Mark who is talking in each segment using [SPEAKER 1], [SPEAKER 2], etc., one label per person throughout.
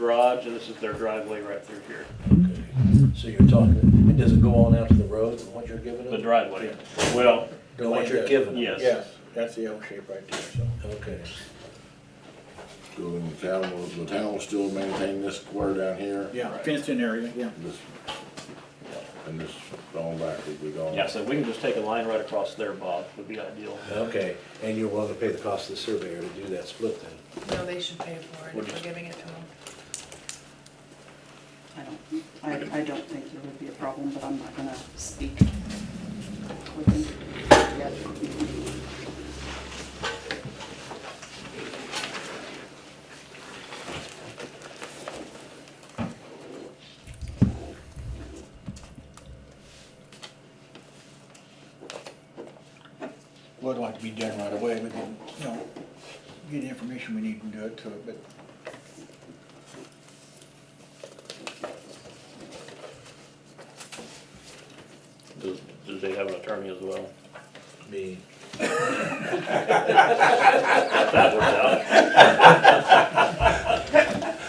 [SPEAKER 1] garage, and this is their driveway right through here,
[SPEAKER 2] Okay, so you're talking, it doesn't go on out to the road, what you're giving
[SPEAKER 1] the
[SPEAKER 2] them?
[SPEAKER 1] driveway. Well,
[SPEAKER 2] Or What you're giving them?
[SPEAKER 1] yes.
[SPEAKER 3] Yes, that's the L shape right there, so.
[SPEAKER 2] Okay,
[SPEAKER 4] So then the town will, the town will still maintain this square down here?
[SPEAKER 3] Yeah, fenced in area, yeah.
[SPEAKER 4] This, and this going back will be gone?
[SPEAKER 1] Yeah, so we can just take a line right across there, Bob, would be ideal.
[SPEAKER 2] okay, and you're willing to pay the cost of the surveyor to do that split then?
[SPEAKER 5] No, they should pay for it
[SPEAKER 4] We're
[SPEAKER 5] if we're
[SPEAKER 4] just-
[SPEAKER 5] giving it to them.
[SPEAKER 6] I don't, I, I don't think there would be a problem, but I'm not gonna speak.
[SPEAKER 3] Would like to be done right away, we can, you know, get the information we need and do it to it, but
[SPEAKER 1] Does, does they have an attorney as well?
[SPEAKER 2] Me.
[SPEAKER 1] If that works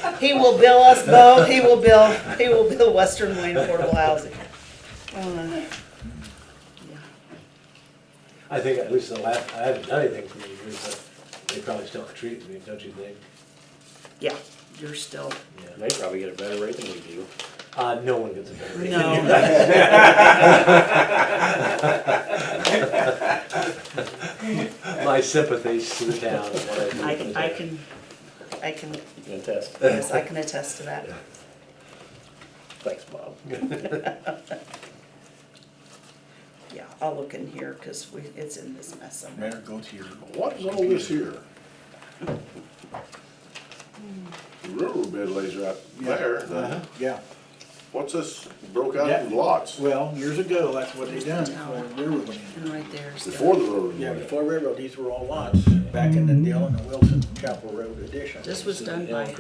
[SPEAKER 1] out,
[SPEAKER 7] He will bill us both, he will bill, he will bill Western Wayne Affordable Housing. Uh,
[SPEAKER 2] I think at least the last, I haven't done anything for you years, but they probably still could treat me, don't you think?
[SPEAKER 7] Yeah, you're still,
[SPEAKER 2] Yeah.
[SPEAKER 8] They probably get a better rate than we do.
[SPEAKER 2] Uh, no one gets a better rate.
[SPEAKER 7] no,
[SPEAKER 2] My sympathies to the town. and what do
[SPEAKER 7] I
[SPEAKER 2] for the
[SPEAKER 7] can, I
[SPEAKER 2] town.
[SPEAKER 7] can, I can,
[SPEAKER 8] Fantastic.
[SPEAKER 7] yes, I can attest to that.
[SPEAKER 8] Thanks, Bob.
[SPEAKER 7] Yeah, I'll look in here, cause we, it's in this mess somewhere.
[SPEAKER 3] better go to your.
[SPEAKER 4] What's all this here? The Railroad bed lays right
[SPEAKER 3] Uh-huh,
[SPEAKER 4] there,
[SPEAKER 3] Yeah,
[SPEAKER 4] what's this broke out in lots?
[SPEAKER 3] well, years ago, that's what they done
[SPEAKER 6] tower.
[SPEAKER 3] for railroad. land.
[SPEAKER 6] And right there's. the-
[SPEAKER 4] Before the railroad.
[SPEAKER 3] Yeah,
[SPEAKER 4] went in.
[SPEAKER 3] before railroad, these were all lots, back in the Dillon and Wilson Chapel Road addition.
[SPEAKER 6] Mm-hmm. This was done by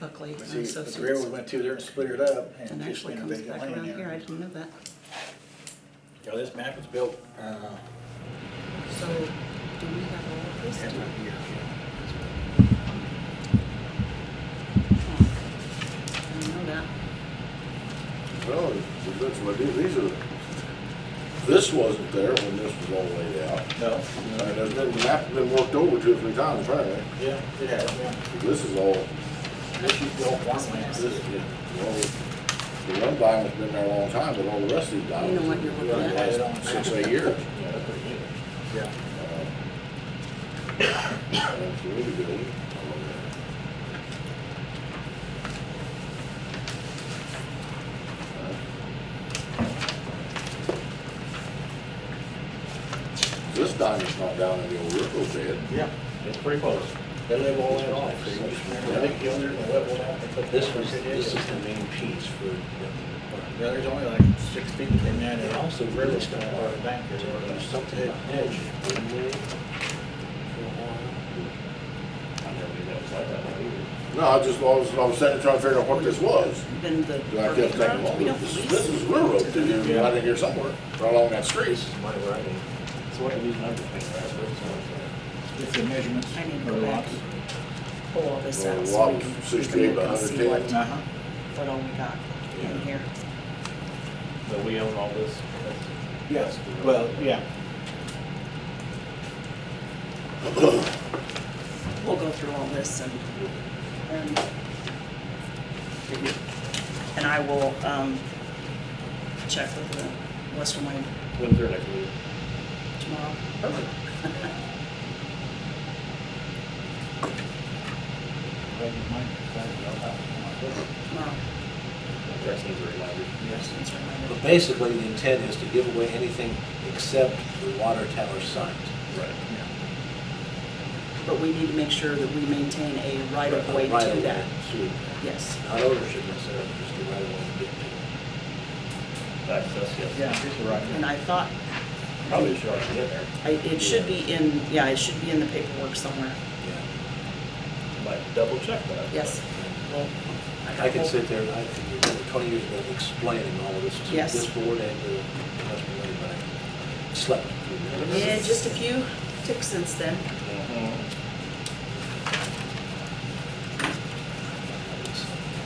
[SPEAKER 6] Buckley
[SPEAKER 3] But See, but
[SPEAKER 6] and
[SPEAKER 3] the
[SPEAKER 6] Associates.
[SPEAKER 3] railroad went through there and split it up and
[SPEAKER 6] And
[SPEAKER 3] just
[SPEAKER 6] actually
[SPEAKER 3] been a
[SPEAKER 6] comes
[SPEAKER 3] vacant
[SPEAKER 6] back
[SPEAKER 3] land
[SPEAKER 6] around here, I
[SPEAKER 3] there.
[SPEAKER 6] didn't know that.
[SPEAKER 3] Yeah, this map was built, uh,
[SPEAKER 6] So, do we have all of this?
[SPEAKER 3] half a year ago.
[SPEAKER 6] I didn't know that.
[SPEAKER 4] Well, that's what I do, these are, this wasn't there when this was all laid out.
[SPEAKER 3] No,
[SPEAKER 4] And it's been, that's been worked over two or three times, apparently.
[SPEAKER 3] yeah, it has, yeah.
[SPEAKER 4] This is all,
[SPEAKER 3] This is the old farmland.
[SPEAKER 4] this, is- well, the one diamond's been there a long time, but all the rest of these
[SPEAKER 6] You
[SPEAKER 4] diamonds.
[SPEAKER 6] know what you're looking
[SPEAKER 4] in the
[SPEAKER 6] at.
[SPEAKER 4] last Six, eight years.
[SPEAKER 3] Yeah.
[SPEAKER 4] That's really good. This diamond's not down in the old river bed.
[SPEAKER 3] Yeah.
[SPEAKER 8] It's pretty close.
[SPEAKER 3] They live all that off. They think the owners will live all that. They put
[SPEAKER 2] This was, this
[SPEAKER 3] Yeah,
[SPEAKER 2] is the main piece for the.
[SPEAKER 3] there's only like six people in that, and also River's gonna have a bank there.
[SPEAKER 2] Do Something about hedge, wouldn't they? For
[SPEAKER 8] I never knew that was like that either.
[SPEAKER 4] No, I just, I was, I was sitting trying to figure out what this was.
[SPEAKER 6] Then the.
[SPEAKER 4] And I kept thinking, well,
[SPEAKER 6] We don't
[SPEAKER 4] this,
[SPEAKER 6] lease.
[SPEAKER 4] this is railroad through here, right in here somewhere, right along that street.
[SPEAKER 8] This is my writing. So what do these numbers mean, right?
[SPEAKER 3] It's the measurements.
[SPEAKER 6] I need to
[SPEAKER 3] for
[SPEAKER 6] go back
[SPEAKER 3] lots.
[SPEAKER 6] and pull all this
[SPEAKER 4] Well,
[SPEAKER 6] out so
[SPEAKER 4] lot
[SPEAKER 6] we
[SPEAKER 4] was
[SPEAKER 6] can. we can
[SPEAKER 4] 68 by
[SPEAKER 6] look and see
[SPEAKER 4] 110.
[SPEAKER 6] what-
[SPEAKER 3] Uh-huh.
[SPEAKER 6] What all we got in here.
[SPEAKER 1] but we own all this.
[SPEAKER 3] Yes, well, yeah.
[SPEAKER 6] We'll go through all this and, and, and I will, um, check with the Western Wayne
[SPEAKER 1] When's their next meeting?
[SPEAKER 6] tomorrow.
[SPEAKER 3] Right in mind, that's
[SPEAKER 6] Tomorrow,
[SPEAKER 8] That seems very loud.
[SPEAKER 6] Western's
[SPEAKER 2] what? But
[SPEAKER 6] reminded.
[SPEAKER 2] basically, the intent is to give away anything except the water tower site.
[SPEAKER 1] Right.
[SPEAKER 6] But we need to make sure that we maintain a right of way
[SPEAKER 2] Right
[SPEAKER 6] to
[SPEAKER 2] away
[SPEAKER 6] that.
[SPEAKER 2] to-
[SPEAKER 6] Yes.
[SPEAKER 2] Not ownership necessarily, just the right of way to get to.
[SPEAKER 1] Access, yes.
[SPEAKER 3] Yeah, it's the right.
[SPEAKER 6] And I thought,
[SPEAKER 8] Probably should already get there.
[SPEAKER 6] I, it should be in, yeah, it should be in the paperwork somewhere.
[SPEAKER 2] Yeah.
[SPEAKER 8] Might double check that.
[SPEAKER 6] Yes. Well,
[SPEAKER 2] I could sit there, and I could, twenty years ago, explaining all of this to
[SPEAKER 6] Yes.
[SPEAKER 2] this board and to the rest of everybody. Slept. through that.
[SPEAKER 6] Yeah, just a few ticks since then.
[SPEAKER 8] Mhm.